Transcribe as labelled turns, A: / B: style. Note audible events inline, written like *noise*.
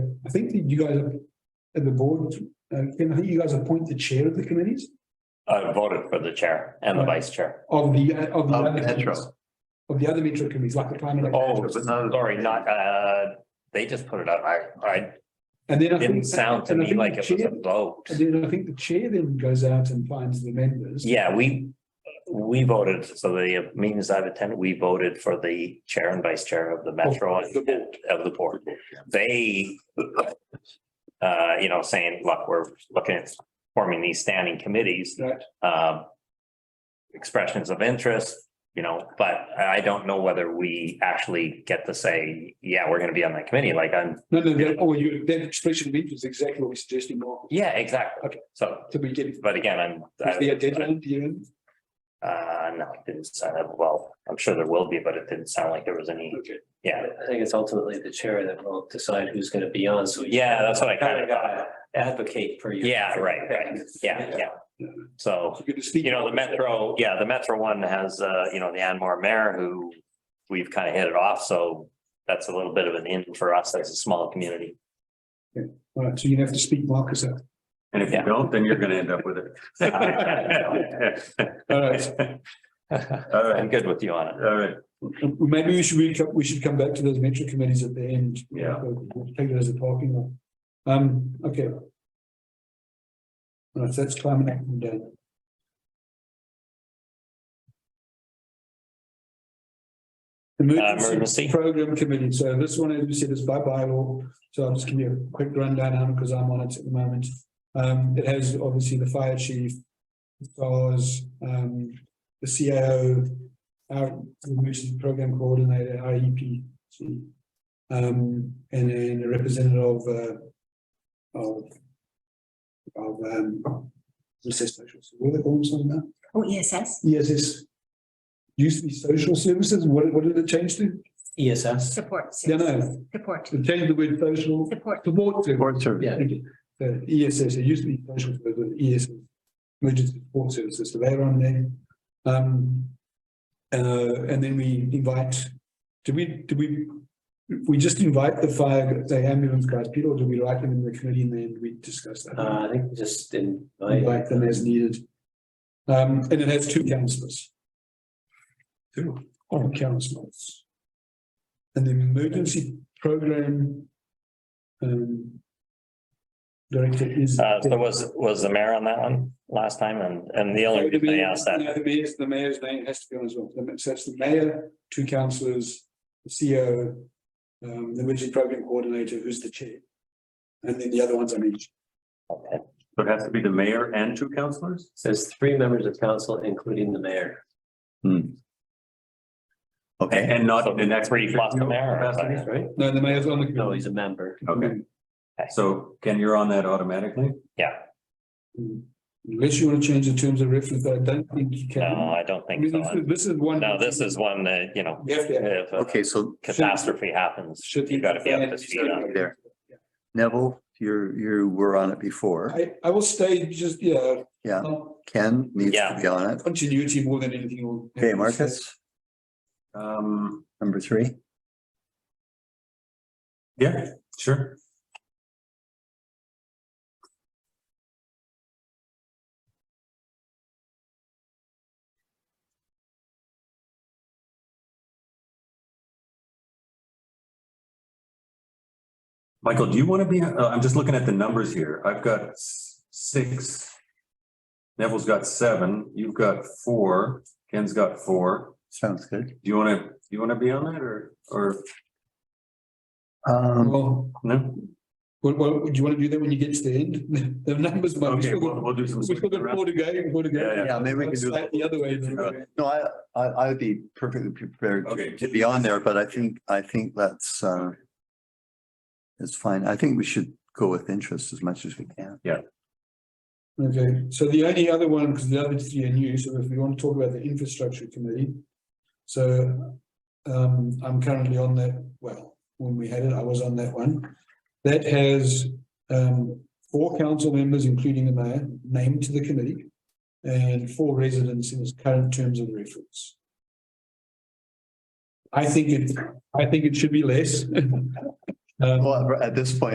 A: I think that you guys, at the board, uh, Ken, I think you guys appoint the chair of the committees
B: I uh, voted for the chair and the vice chair.
A: of the, uh, of the.
C: Of
A: other
C: Metro.
A: committees. Of the other metro committees, like the climate.
B: Oh,
C: But no-
B: sorry, not, uh, they just put it up. I, I
A: And then I think.
B: didn't sound to
A: and I
B: me
A: think
B: like
A: the
B: it was a
A: chair-
B: vote.
A: And then I think the chair then goes out and finds the members.
B: Yeah, we, we voted, so the meetings I've attended, we voted for the chair and vice chair of the metro and
A: Oh, the board.
B: of the board. They, uh, you know, saying, look, we're looking at forming these standing committees.
A: Right.
B: Um, expressions of interest, you know, but I don't know whether we actually get to say, yeah, we're gonna be on that committee, like I'm,
A: No, no, that, oh, you, that expression of interest is exactly what we're suggesting, Mark.
B: yeah, exactly. Okay. So,
A: So we get,
B: but again, I'm.
A: is there a deadline, do you? know?
B: Uh, no, it didn't sound, well, I'm sure there will be, but it didn't sound like there was any,
A: Okay.
B: yeah.
D: I think it's ultimately the chair that will decide who's gonna be on, so. you-
B: Yeah, that's what I kind of got.
D: gotta Advocate for you.
B: Yeah, right, right. Yeah, yeah. So,
A: So you're gonna speak.
B: you know, the Metro, yeah, the Metro one has, uh, you know, the Anmar mayor who we've kind of hit it off, so that's a little bit of an in for us as a small community.
A: All right, so you have to speak, Marcus. out.
C: And if
B: Yeah.
C: you don't, then you're gonna end up with it.
A: All
C: *laughs*
A: right,
C: All
B: Uh, I'm
C: right,
B: good with you on it.
C: all right,
A: maybe we should, we should- we should come back to those metro committees at the end.
C: Yeah.
A: We'll Take it as a parking lot. Um, okay. All right, so that's climate action done.
B: Uh, emergency.
A: Program committee, so this one, as we said, is by bylaw, so I'll just give you a quick rundown on because I'm on it at the moment. Um, it has obviously the fire chief, stars, um, the CAO, our emergency program coordinator, IEP. Um, and then a representative of, uh, of, of, um, recess socials, what do they call themselves now? E
E: Oh, ESS,
A: ESS. Used to be social services, what, what did it change to?
D: ESS.
E: support.
A: Yeah, no.
E: Support,
A: It changed the word social,
E: support.
A: support to
C: board service.
D: Yeah.
A: Thank you. The ESS, it used to be social, but the ESS, emergency support services, so they're on there. Um, uh, and then we invite, do we, do we, we just invite the fire, the ambulance guys, people, or do we write them in the committee and then we discuss that?
D: Uh, I think just in.
A: Invite them as needed. Um, and it has two councillors. Two. On councillors. And the emergency program. Um. Director is.
B: Uh, so was, was the mayor on that one last time? And, and the only reason I asked that,
A: No, The mayor's, the mayor's name has to be on as well. So it's the mayor, two councillors, the CEO, um, the emergency program coordinator, who's the chair. And then the other ones I mentioned.
B: okay,
C: So it has to be the mayor and two councilors?
D: Says three members of council, including the mayor.
C: Okay, and not
B: So
C: in the next.
B: three plus the mayor or
C: capacity?
B: something?
D: Right?
A: No, the mayor's on the.
D: No, he's a member.
C: Okay, so Ken, you're on that automatically?
B: yeah,
A: Unless you want to change the terms of reference, but I don't think you can.
B: no, I don't
A: I
B: think
A: mean,
B: so.
A: this is- this is one.
B: No, this is one that, you know,
A: We have to.
B: if a
F: Okay, so
B: catastrophe happens,
A: should
B: you gotta be up to speed on it.
F: There. Neville, you're, you were on it before.
A: I, I will stay just, yeah.
F: Yeah.
A: not
F: Ken needs to
B: Yeah.
F: be on it.
A: Continuity more than anything. will-
F: Okay, Marcus,
C: Um,
F: number three.
C: yeah, sure. Michael, do you want to be, uh, I'm just looking at the numbers here. I've got s- six. Neville's got seven, you've got four, Ken's got four.
F: Sounds good.
C: Do you want to, you want to be on that or, or
F: Um,
A: Well,
C: no?
A: well, well, do you want to do that when you get to the end? *laughs* The numbers might.
C: Okay, we'll, we'll do some.
A: We've still got four to go, four to
C: Yeah,
A: go.
C: yeah.
F: yeah, maybe we can do
A: Slightly
F: that.
A: The other way. than-
C: Uh,
F: No, I, I, I would be perfectly prepared
C: Okay.
F: to be on there, but I think, I think that's, uh, it's fine. I think we should go with interest as much as we can.
A: Okay, so the only other one, because the other three are new, so if we want to talk about the infrastructure committee. So um, I'm currently on that, well, when we had it, I was on that one. That has um, four council members, including the mayor, named to the committee. And four residents in its current terms of reference. I think it, I think it should be less. *laughs* Um,
F: Well, at this point,